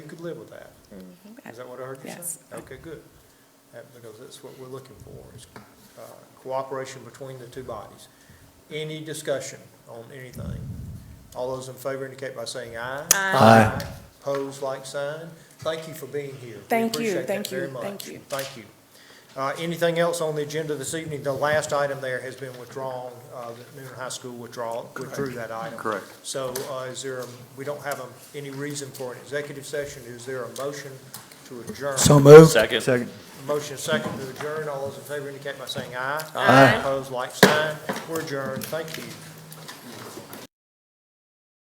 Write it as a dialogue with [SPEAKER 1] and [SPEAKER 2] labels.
[SPEAKER 1] live with that. Is that what I heard you say?
[SPEAKER 2] Yes.
[SPEAKER 1] Okay, good. That- Because that's what we're looking for, is uh, cooperation between the two bodies. Any discussion on anything? All those in favor indicate by saying aye.
[SPEAKER 3] Aye.
[SPEAKER 1] Pose like sign. Thank you for being here. We
[SPEAKER 2] Thank you,
[SPEAKER 1] appreciate that
[SPEAKER 2] thank you,
[SPEAKER 1] very much.
[SPEAKER 2] thank you.
[SPEAKER 1] Thank you. Uh, Anything else on the agenda this evening? The last item there has been withdrawn, uh, the Newnan High School withdrawal, withdrew that item.
[SPEAKER 3] Correct.
[SPEAKER 1] So uh, is there, a- we don't have a- any reason for an executive session. Is there a motion to adjourn?
[SPEAKER 3] So moved.
[SPEAKER 4] Second.
[SPEAKER 3] Second.
[SPEAKER 1] Motion second to adjourn. All those in favor indicate by saying aye.
[SPEAKER 3] Aye.
[SPEAKER 1] Opposed, like sign. We're adjourned. Thank you.